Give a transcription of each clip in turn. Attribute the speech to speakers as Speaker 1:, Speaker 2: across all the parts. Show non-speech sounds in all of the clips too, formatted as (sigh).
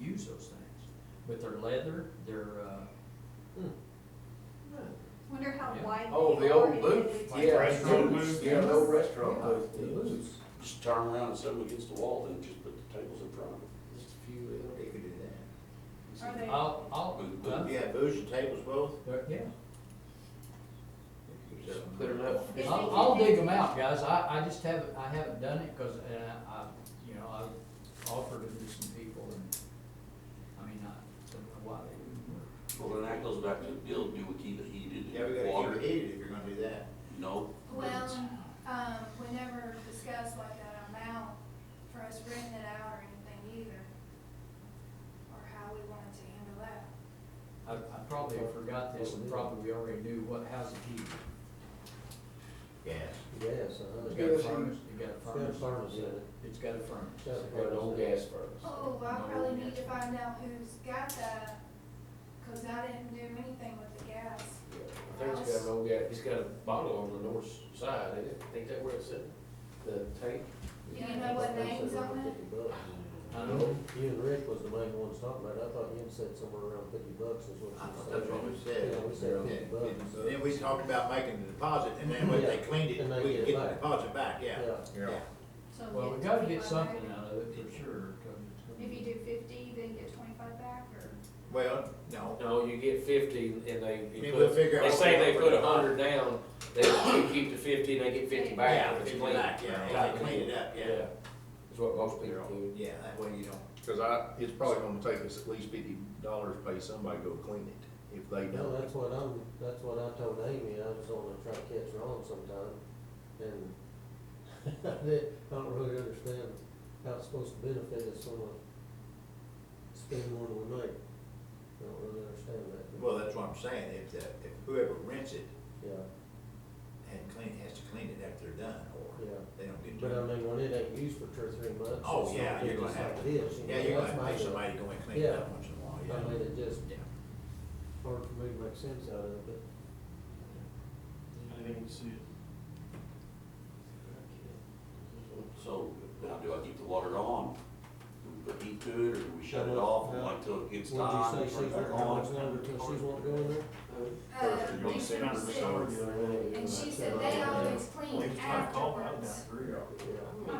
Speaker 1: use those things. But they're leather, they're, uh,
Speaker 2: Wonder how
Speaker 1: Yeah.
Speaker 2: wide.
Speaker 3: Oh,
Speaker 2: they
Speaker 3: the
Speaker 2: are
Speaker 3: old
Speaker 2: in
Speaker 3: booth,
Speaker 2: the-
Speaker 4: Like
Speaker 3: yeah.
Speaker 4: restaurant booth?
Speaker 3: Yeah, the old restaurant
Speaker 1: Yeah,
Speaker 3: booth.
Speaker 1: the booths.
Speaker 5: Just turn around and set them against the wall, then just put the tables in front of them.
Speaker 3: Just a few, uh,
Speaker 4: They could do that.
Speaker 2: Are they,
Speaker 1: I'll, I'll, huh?
Speaker 4: Yeah, booths and tables both.
Speaker 1: They're- yeah.
Speaker 3: Just put it up.
Speaker 2: Is
Speaker 1: I'll,
Speaker 2: it-
Speaker 1: I'll dig them out, guys, I, I just haven't, I haven't done it, cause, and I, I- you know, I've offered them to some people and, I mean, I don't know why they wouldn't work.
Speaker 5: Well, then that goes back to the deal, do we keep it heated
Speaker 4: Yeah, we
Speaker 5: and
Speaker 4: gotta
Speaker 5: water?
Speaker 4: keep it heated if you're gonna do that.
Speaker 5: No.
Speaker 2: well, um, we never discussed like that amount for us renting it out or anything either. Or how we wanted to handle that.
Speaker 1: I, I probably forgot this and probably already knew what, how's it heated.
Speaker 4: Gas.
Speaker 6: Yes, uh,
Speaker 1: It's got a
Speaker 6: it's got
Speaker 1: furnace, it's got
Speaker 6: it's got a
Speaker 1: a furnace,
Speaker 6: furnace in it.
Speaker 1: it's got a furnace.
Speaker 6: Got a
Speaker 3: Got an old gas furnace.
Speaker 2: Oh, I
Speaker 1: No,
Speaker 2: probably
Speaker 1: we-
Speaker 2: need to find out who's got that, cause I didn't do anything with the gas.
Speaker 3: Yeah, I think it's got an old guy, he's got a bottle on the north side, ain't it? Think that where it's at? The tank?
Speaker 2: Do you know what name's on it?
Speaker 6: Fifty bucks.
Speaker 1: I know,
Speaker 6: You and Rick was the main ones talking about it, I thought you had said somewhere around fifty bucks is what you
Speaker 4: I
Speaker 6: said.
Speaker 4: thought that's what we said.
Speaker 6: Yeah, we said fifty bucks.
Speaker 4: Then we talked about making the deposit, and then when they
Speaker 6: Yeah.
Speaker 4: cleaned it,
Speaker 6: And they
Speaker 4: we
Speaker 6: get
Speaker 4: could
Speaker 6: it
Speaker 4: get the
Speaker 6: back.
Speaker 4: deposit back, yeah. Yeah.
Speaker 2: So
Speaker 1: well,
Speaker 2: get
Speaker 1: we gotta get
Speaker 2: 25
Speaker 1: something
Speaker 2: back.
Speaker 1: out of it for sure, 'cause
Speaker 2: If
Speaker 1: it's-
Speaker 2: you do fifty, then get twenty-five back, or?
Speaker 4: Well, no,
Speaker 3: No, you get fifty and they,
Speaker 4: Maybe
Speaker 3: you put-
Speaker 4: we'll figure out
Speaker 3: they
Speaker 4: what
Speaker 3: say
Speaker 4: they
Speaker 3: they
Speaker 4: put
Speaker 3: put a hundred down, they you keep the fifty and they get fifty
Speaker 4: yeah,
Speaker 3: back. if
Speaker 4: if
Speaker 3: it's
Speaker 4: you
Speaker 3: clean.
Speaker 4: like, yeah, if they clean it up, yeah.
Speaker 3: That's what most people do.
Speaker 4: Yeah, that way you don't,
Speaker 7: Cause I, it's probably gonna take us at least fifty dollars to pay somebody to go clean it, if they
Speaker 6: No,
Speaker 7: don't.
Speaker 6: that's what I'm, that's what I told Amy, I was gonna try to catch her on sometime, and (laughs) I didn't- I don't really understand how it's supposed to benefit us when we spend more than we make. I don't really understand that, but,
Speaker 4: well, that's what I'm saying, if the, if whoever rents it
Speaker 6: yeah.
Speaker 4: and clean, has to clean it after they're done, or
Speaker 6: Yeah.
Speaker 4: they don't get. to-
Speaker 6: But I mean, when it ain't used for two or three months.
Speaker 4: Oh,
Speaker 6: it's
Speaker 4: yeah,
Speaker 6: gonna be
Speaker 4: you're gonna
Speaker 6: just
Speaker 4: have
Speaker 6: like
Speaker 4: to,
Speaker 6: it is, you
Speaker 4: yeah,
Speaker 6: know,
Speaker 4: you're
Speaker 6: that's
Speaker 4: gonna
Speaker 6: my
Speaker 4: pay
Speaker 6: deal.
Speaker 4: somebody to go and clean it up
Speaker 6: Yeah.
Speaker 4: once in a
Speaker 6: I
Speaker 4: while,
Speaker 6: mean,
Speaker 4: yeah.
Speaker 6: it just
Speaker 4: Yeah.
Speaker 6: hard for me to make sense out of it, but.
Speaker 8: I didn't see it.
Speaker 5: So, now do I keep the water on? Do we put heat to it, or do we shut it off and wait till it gets time?
Speaker 6: What'd you say,
Speaker 5: turn
Speaker 6: she's,
Speaker 5: it back
Speaker 6: how much
Speaker 5: on?
Speaker 6: longer till she's won't go in
Speaker 2: Uh,
Speaker 6: there?
Speaker 5: You're
Speaker 8: You're
Speaker 2: they
Speaker 8: gonna sit under
Speaker 2: should
Speaker 8: the
Speaker 2: be
Speaker 8: shower
Speaker 2: six.
Speaker 8: the other day.
Speaker 2: And she said they always clean
Speaker 8: Leave my call out now,
Speaker 2: afterwards.
Speaker 8: three hours.
Speaker 3: Yeah.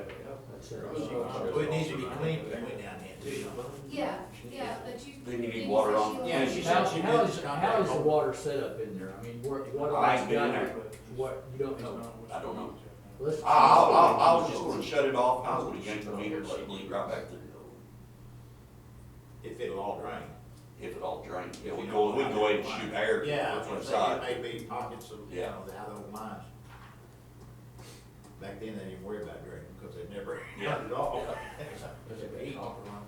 Speaker 6: I'd say-
Speaker 4: Well, it needs to be cleaned when we went down there too.
Speaker 2: Yeah, yeah, but you.
Speaker 5: Then you need
Speaker 2: didn't
Speaker 5: water
Speaker 2: say
Speaker 5: on.
Speaker 2: she
Speaker 4: Yeah,
Speaker 2: was-
Speaker 4: she
Speaker 1: How,
Speaker 4: said she
Speaker 1: how
Speaker 4: did
Speaker 1: is,
Speaker 4: just
Speaker 1: how
Speaker 4: contact.
Speaker 1: is the water set up in there? I mean, what, what
Speaker 5: I
Speaker 1: all's
Speaker 5: ain't been in
Speaker 1: got,
Speaker 5: there.
Speaker 1: what, you don't
Speaker 8: It's
Speaker 1: know?
Speaker 8: not what
Speaker 5: I don't
Speaker 8: you
Speaker 5: know.
Speaker 8: want.
Speaker 6: Let's-
Speaker 5: I,
Speaker 4: Ah,
Speaker 5: I, I was just gonna shut it off, I was gonna yank the meter, let it bleed right back through,
Speaker 4: If it'll all drain.
Speaker 5: if it all drained. Yeah, we go, we go ahead and shoot air
Speaker 4: Yeah, I was
Speaker 5: from
Speaker 4: gonna
Speaker 5: the
Speaker 4: say,
Speaker 5: side.
Speaker 4: it may be pockets of, you
Speaker 5: Yeah.
Speaker 4: know, the- how the old mines. Back then, they didn't worry about draining, because they never, (laughs)
Speaker 5: Yeah.
Speaker 4: not at all. (laughs)
Speaker 1: Does it
Speaker 4: Eight.
Speaker 1: copper on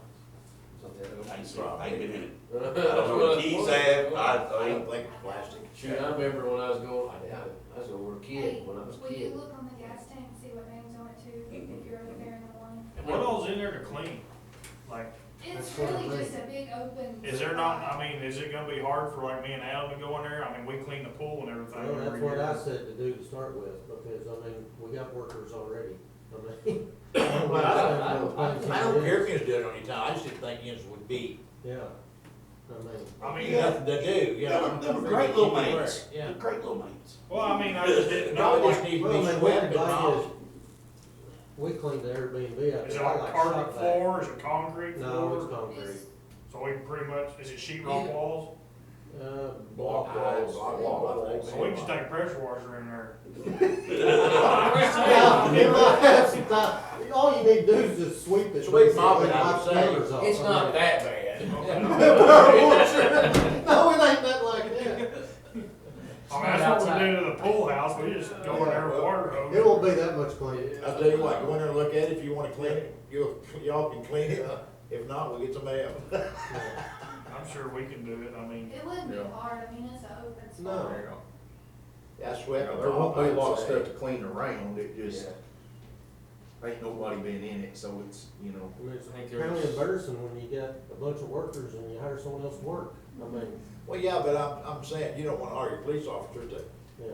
Speaker 5: I ain't seen, I ain't
Speaker 4: (laughs)
Speaker 5: been in it. I don't know where the keys at,
Speaker 4: I
Speaker 5: I, I
Speaker 4: don't
Speaker 5: ain't,
Speaker 4: think plastic.
Speaker 3: Shoot, I remember when I was going, I, I was over a
Speaker 2: Hey,
Speaker 3: kid, when I was a
Speaker 2: will you
Speaker 3: kid.
Speaker 2: look on the gas tank and see what names on it too,
Speaker 5: Mm-hmm.
Speaker 2: if you're over there in the morning?
Speaker 8: What all's in there to clean? Like,
Speaker 2: It's
Speaker 6: That's what I
Speaker 2: really
Speaker 6: mean.
Speaker 2: just a big open.
Speaker 8: is there not, I mean, is it gonna be hard for like me and Adam to go in there? I mean, we clean the pool and everything
Speaker 6: Well,
Speaker 8: every
Speaker 6: that's what I
Speaker 8: year.
Speaker 6: said to do to start with, because I mean, we got workers already, I mean. (coughs) I
Speaker 4: I don't care if you just do it on your time, I just didn't think it would be,
Speaker 6: Yeah, I mean.
Speaker 8: I mean,
Speaker 4: nothing to do, you
Speaker 5: they
Speaker 4: know.
Speaker 5: were, they were great little mates,
Speaker 4: Yeah.
Speaker 5: they're great little mates.
Speaker 8: well, I mean, I just didn't know.
Speaker 4: Probably just
Speaker 8: like,
Speaker 4: need to
Speaker 6: Well,
Speaker 4: be
Speaker 6: I mean, we
Speaker 4: swept
Speaker 6: could
Speaker 4: and
Speaker 6: buy
Speaker 4: all.
Speaker 6: his- We cleaned the Airbnb out
Speaker 8: Is it
Speaker 6: there, I
Speaker 8: like
Speaker 6: like
Speaker 8: carpet
Speaker 6: shop vac.
Speaker 8: floor, is it concrete
Speaker 6: No, it's
Speaker 8: floor?
Speaker 6: concrete,
Speaker 8: So we can pretty much, is it sheet rock walls?
Speaker 6: uh, block (laughs)
Speaker 4: Block
Speaker 6: walls.
Speaker 4: walls, block walls.
Speaker 8: So we can just take pressure washer in there.
Speaker 4: (laughs)
Speaker 6: Yeah, you might (laughs) have some time. all you need to do is just sweep it.
Speaker 4: Sweep mop it, I would
Speaker 6: Knock the
Speaker 4: say.
Speaker 6: covers off.
Speaker 3: It's not that bad.
Speaker 6: No, it ain't that like that,
Speaker 8: I mean, that's what we do to the pool house, we just go in there with water hose.
Speaker 6: it won't be that much cleaner.
Speaker 4: I'll tell you what, go in there and look at it, if you wanna clean it, you, y'all can clean it, if not, we'll get somebody else.
Speaker 8: I'm sure we can do it, I mean.
Speaker 2: It wouldn't be
Speaker 7: Yeah.
Speaker 2: hard, I mean, it's an open spot.
Speaker 6: No.
Speaker 4: (laughs) I
Speaker 7: There
Speaker 4: swept it
Speaker 7: won't
Speaker 4: off,
Speaker 7: be a lot of
Speaker 4: I'd
Speaker 7: stuff
Speaker 4: say.
Speaker 7: to clean around, it just, ain't nobody been in it, so it's, you know.
Speaker 6: I mean, it's
Speaker 3: think
Speaker 6: kind
Speaker 3: there's-
Speaker 6: of embarrassing when you got a bunch of workers and you hire someone else to work, I mean,
Speaker 4: Well, yeah, but I'm, I'm saying, you don't wanna argue police officers to
Speaker 6: yeah.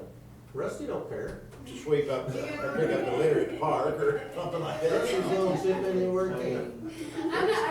Speaker 6: Rusty don't care,
Speaker 4: to sweep up, the- or pick up the litter at the park or something like that.
Speaker 6: Rusty's going to sit anywhere he can.
Speaker 2: I'm not,